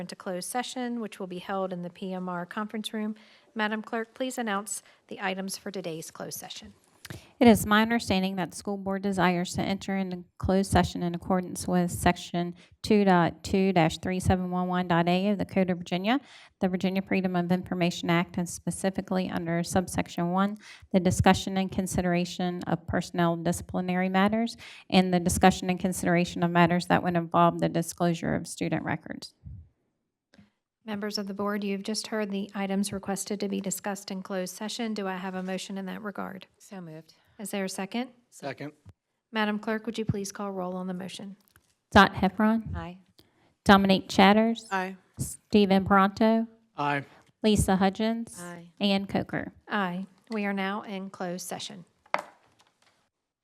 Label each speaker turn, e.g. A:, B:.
A: into closed session, which will be held in the PMR conference room. Madam Clerk, please announce the items for today's closed session.
B: It is my understanding that the school board desires to enter into closed session in accordance with Section 2.2-3711.a of the Code of Virginia, the Virginia Freedom of Information Act, and specifically under subsection 1, the discussion and consideration of personnel disciplinary matters, and the discussion and consideration of matters that would involve the disclosure of student records.
A: Members of the board, you've just heard the items requested to be discussed in closed session. Do I have a motion in that regard?
C: So moved.
A: Is there a second?
D: Second.
A: Madam Clerk, would you please call roll on the motion?
B: Dot Heffron,
C: Aye.
B: Dominique Chatters,
D: Aye.
B: Stephen Pronto,
D: Aye.
B: Lisa Hudgens,
C: Aye.
B: Ann Coker.
A: Aye. We are now in closed session.